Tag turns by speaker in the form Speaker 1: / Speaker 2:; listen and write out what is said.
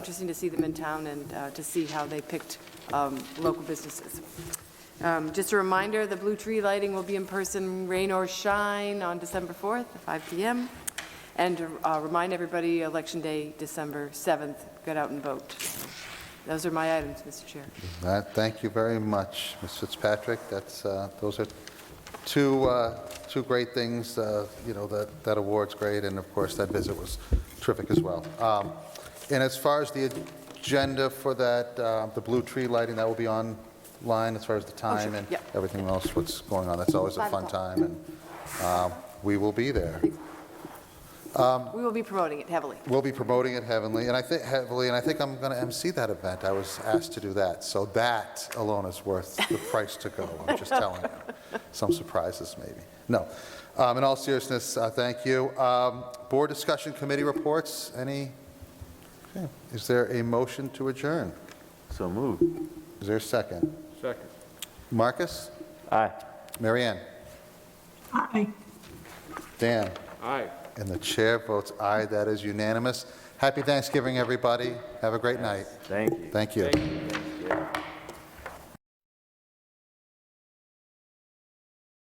Speaker 1: Interesting to see them in town and uh, to see how they picked um, local businesses. Um, Just a reminder, the Blue Tree Lighting will be in person, rain or shine, on December 4th at 5 PM. And to, uh, remind everybody, Election Day, December 7th, get out and vote. Those are my items, Mr. Chair.
Speaker 2: Uh, Thank you very much, Ms. Fitzpatrick. That's, uh, those are two, uh, two great things, uh, you know, that, that award's great, and of course, that visit was terrific as well. Um, And as far as the agenda for that, uh, the blue tree lighting, that will be online as far as the time and
Speaker 1: yeah.
Speaker 2: everything else, what's going on. That's always a
Speaker 1: Five
Speaker 2: fun
Speaker 1: o'clock.
Speaker 2: time, and um, we will be there.
Speaker 1: We will be promoting it heavily.
Speaker 2: We'll be promoting it heavenly, and I think heavily, and I think I'm going to MC that event. I was asked to do that, so that alone is worth the price to go. I'm just telling you. Some surprises, maybe. No. Um, in all seriousness, uh, thank you. Um, board discussion committee reports. Any? Okay. Is there a motion to adjourn?
Speaker 3: So moved.
Speaker 2: Is there a second?
Speaker 3: Second.
Speaker 2: Marcus,
Speaker 3: Aye.
Speaker 2: Marianne,
Speaker 4: Aye.
Speaker 2: Dan,
Speaker 3: Aye.
Speaker 2: and the chair votes aye. That is unanimous. Happy Thanksgiving, everybody. Have a great night.
Speaker 3: Thank you.
Speaker 2: Thank you.
Speaker 3: Thank you. Thank you.